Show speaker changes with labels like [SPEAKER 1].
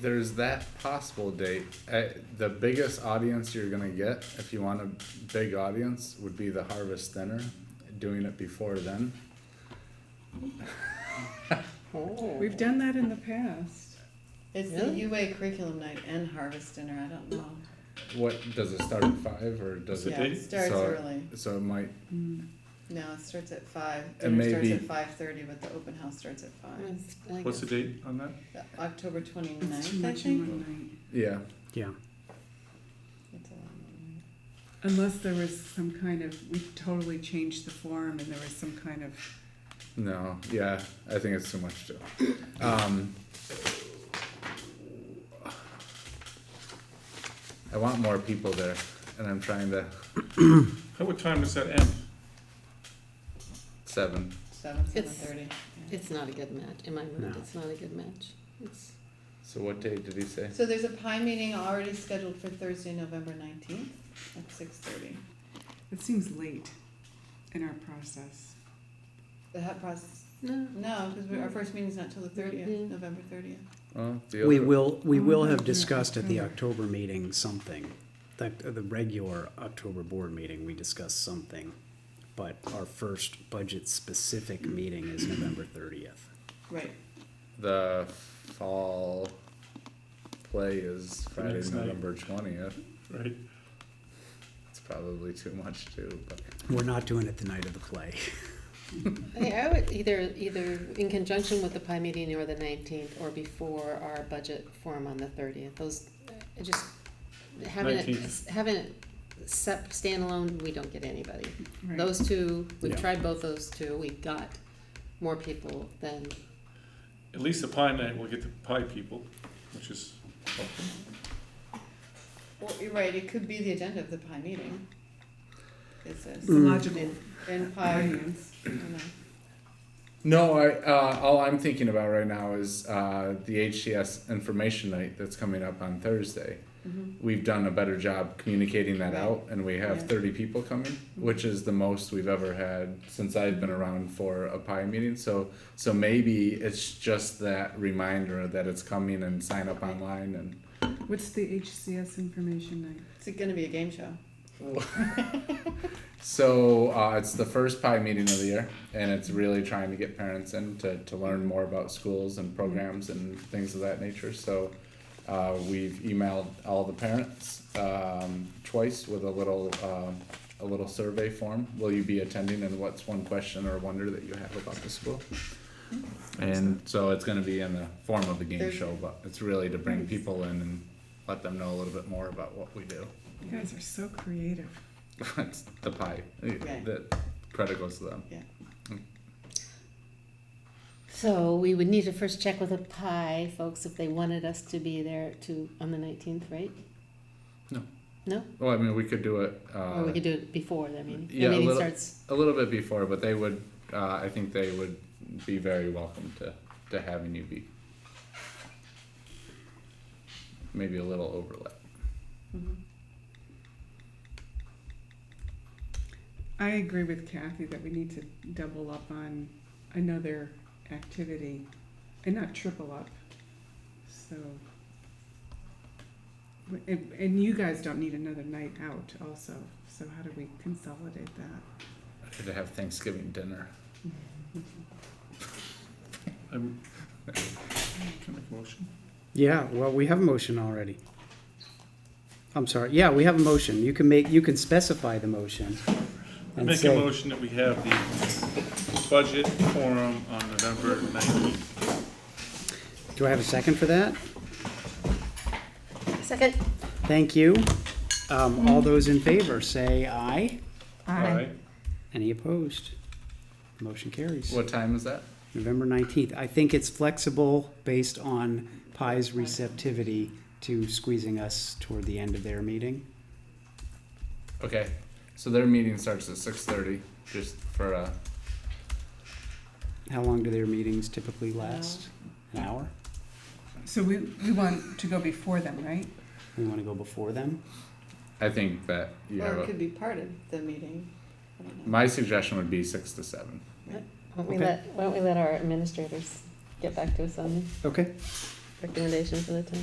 [SPEAKER 1] there's that possible date. Uh, the biggest audience you're gonna get, if you want a big audience, would be the Harvest Dinner. Doing it before then.
[SPEAKER 2] We've done that in the past.
[SPEAKER 3] It's the UA curriculum night and harvest dinner, I don't know.
[SPEAKER 1] What does it start at five or does
[SPEAKER 3] Yeah,
[SPEAKER 1] it?
[SPEAKER 3] it starts
[SPEAKER 1] So-
[SPEAKER 3] early.
[SPEAKER 1] So it might.
[SPEAKER 3] No, it starts at five.
[SPEAKER 1] And
[SPEAKER 3] Dinner starts
[SPEAKER 1] maybe-
[SPEAKER 3] at five thirty, but the open house starts at
[SPEAKER 4] Mm.
[SPEAKER 3] five.
[SPEAKER 5] What's the date on that?
[SPEAKER 3] The October
[SPEAKER 2] It's too
[SPEAKER 3] twenty-ninth, I
[SPEAKER 2] much in
[SPEAKER 3] think.
[SPEAKER 2] one night.
[SPEAKER 1] Yeah.
[SPEAKER 6] Yeah.
[SPEAKER 3] It's a long
[SPEAKER 2] Unless there was some kind of, we totally changed the form and there was some kind of,
[SPEAKER 1] No. Yeah. I think it's too much too. Um, I want more people there, and I'm trying to
[SPEAKER 5] At what time does that end?
[SPEAKER 1] seven.
[SPEAKER 3] night. Seven, seven
[SPEAKER 4] It's-
[SPEAKER 3] thirty.
[SPEAKER 4] It's not a good match, in my mind,
[SPEAKER 6] No.
[SPEAKER 4] it's not a good match. It's,
[SPEAKER 1] So what date did he say?
[SPEAKER 3] So there's a pie meeting already scheduled for Thursday, November nineteenth at six thirty.
[SPEAKER 2] it seems late in our process.
[SPEAKER 3] The hat process,
[SPEAKER 4] no,
[SPEAKER 3] no, because our first meeting's not till the thirtieth,
[SPEAKER 4] Yeah.
[SPEAKER 3] November thirtieth.
[SPEAKER 1] Well, the
[SPEAKER 6] We
[SPEAKER 1] other-
[SPEAKER 6] will, we
[SPEAKER 2] Oh,
[SPEAKER 6] will
[SPEAKER 2] yeah,
[SPEAKER 6] have
[SPEAKER 2] yeah,
[SPEAKER 6] discussed at the
[SPEAKER 2] October.
[SPEAKER 6] October meeting something. The, the regular October board meeting, we discussed something. But our first budget-specific meeting is November thirtieth.
[SPEAKER 3] Right,
[SPEAKER 1] The fall play is Friday,
[SPEAKER 5] next night.
[SPEAKER 1] November twentieth.
[SPEAKER 5] Right,
[SPEAKER 1] It's probably too much too, but
[SPEAKER 6] We're not doing it the night of the play.
[SPEAKER 4] I I would either, either in conjunction with the pie meeting or the nineteenth, or before our budget forum on the thirtieth, those, I just, having it,
[SPEAKER 5] 19th.
[SPEAKER 4] having it sep, standalone, we don't get anybody.
[SPEAKER 2] Right.
[SPEAKER 4] Those two,
[SPEAKER 6] Yeah.
[SPEAKER 4] we've tried both those two, we got more people than,
[SPEAKER 5] at least the pie night, we'll get the pie people, which is,
[SPEAKER 3] well, you're right, it could be the agenda of the pie meeting. It says.
[SPEAKER 2] It's
[SPEAKER 1] Mm.
[SPEAKER 6] Mm.
[SPEAKER 2] a logical
[SPEAKER 3] And- And pie,
[SPEAKER 2] audience.
[SPEAKER 3] you know.
[SPEAKER 1] no, I uh, all I'm thinking about right now is uh, the HCS information night that's coming up on Thursday.
[SPEAKER 3] Mhm.
[SPEAKER 1] We've done a better job communicating that
[SPEAKER 3] Right.
[SPEAKER 1] out, and we have
[SPEAKER 3] Yeah.
[SPEAKER 1] thirty people coming, which is the most we've ever had since I've been around for a pie meeting. So, so maybe it's just that reminder that it's coming and sign up online and
[SPEAKER 2] What's the HCS information night?
[SPEAKER 3] It's gonna be a game show.
[SPEAKER 1] So uh, it's the first pie meeting of the year, and it's really trying to get parents in to, to learn more about schools and programs and things of that nature. So uh, we've emailed all the parents um, twice with a little um a little survey form. Will you be attending, and what's one question or wonder that you have about the school? And so it's going to be in the form of a game show, but it's really to bring people in and let them know a little bit more about what we do.
[SPEAKER 2] You guys are so creative.
[SPEAKER 1] That's the pie.
[SPEAKER 3] Right.
[SPEAKER 1] The credit goes to them.
[SPEAKER 4] so we would need to first check with the pie folks if they wanted us to be there to, on the nineteenth, right?
[SPEAKER 1] Well, I mean, we could do it
[SPEAKER 4] Or
[SPEAKER 1] uh,
[SPEAKER 4] we could do it before, I mean, the
[SPEAKER 1] yeah, a
[SPEAKER 4] meeting
[SPEAKER 1] little-
[SPEAKER 4] starts,
[SPEAKER 1] a little bit before, but they would. Uh, I think they would be very welcome to to having you be. Maybe a little overlap.
[SPEAKER 3] Mm-hmm.
[SPEAKER 2] I agree with Kathy that we need to double up on another activity and not triple up. So, and, and you guys don't need another night out also. So how do we consolidate that?
[SPEAKER 1] I could have Thanksgiving dinner.
[SPEAKER 5] I'm, can I make a motion?
[SPEAKER 6] Yeah, well, we have a motion already. I'm sorry, yeah, we have a motion. You can make, you can specify the motion.
[SPEAKER 5] I
[SPEAKER 6] and
[SPEAKER 5] make a
[SPEAKER 6] say-
[SPEAKER 5] motion that we have the budget forum on November nineteenth.
[SPEAKER 6] Do I have a second for that?
[SPEAKER 4] second,
[SPEAKER 6] Thank you. Um, all those in favor, say aye.
[SPEAKER 5] Aye.
[SPEAKER 6] Any opposed? Motion carries.
[SPEAKER 1] What time is that?
[SPEAKER 6] November nineteenth. I think it's flexible based on Pi's receptivity to squeezing us toward the end of their meeting.
[SPEAKER 1] Okay, so their meeting starts at six thirty. Just for uh,
[SPEAKER 6] How long do their meetings typically last? An hour?
[SPEAKER 2] So we, we want to go before them, right?
[SPEAKER 6] We want to go before them?
[SPEAKER 1] I think that you
[SPEAKER 3] Or
[SPEAKER 1] have.
[SPEAKER 3] it
[SPEAKER 1] A,
[SPEAKER 3] could be part of the meeting. I don't know.
[SPEAKER 1] my suggestion would be six to seven.
[SPEAKER 4] why don't we
[SPEAKER 6] Okay.
[SPEAKER 4] let, why don't we let our administrators get back to us on this?
[SPEAKER 6] Okay.
[SPEAKER 4] recommendation for the town.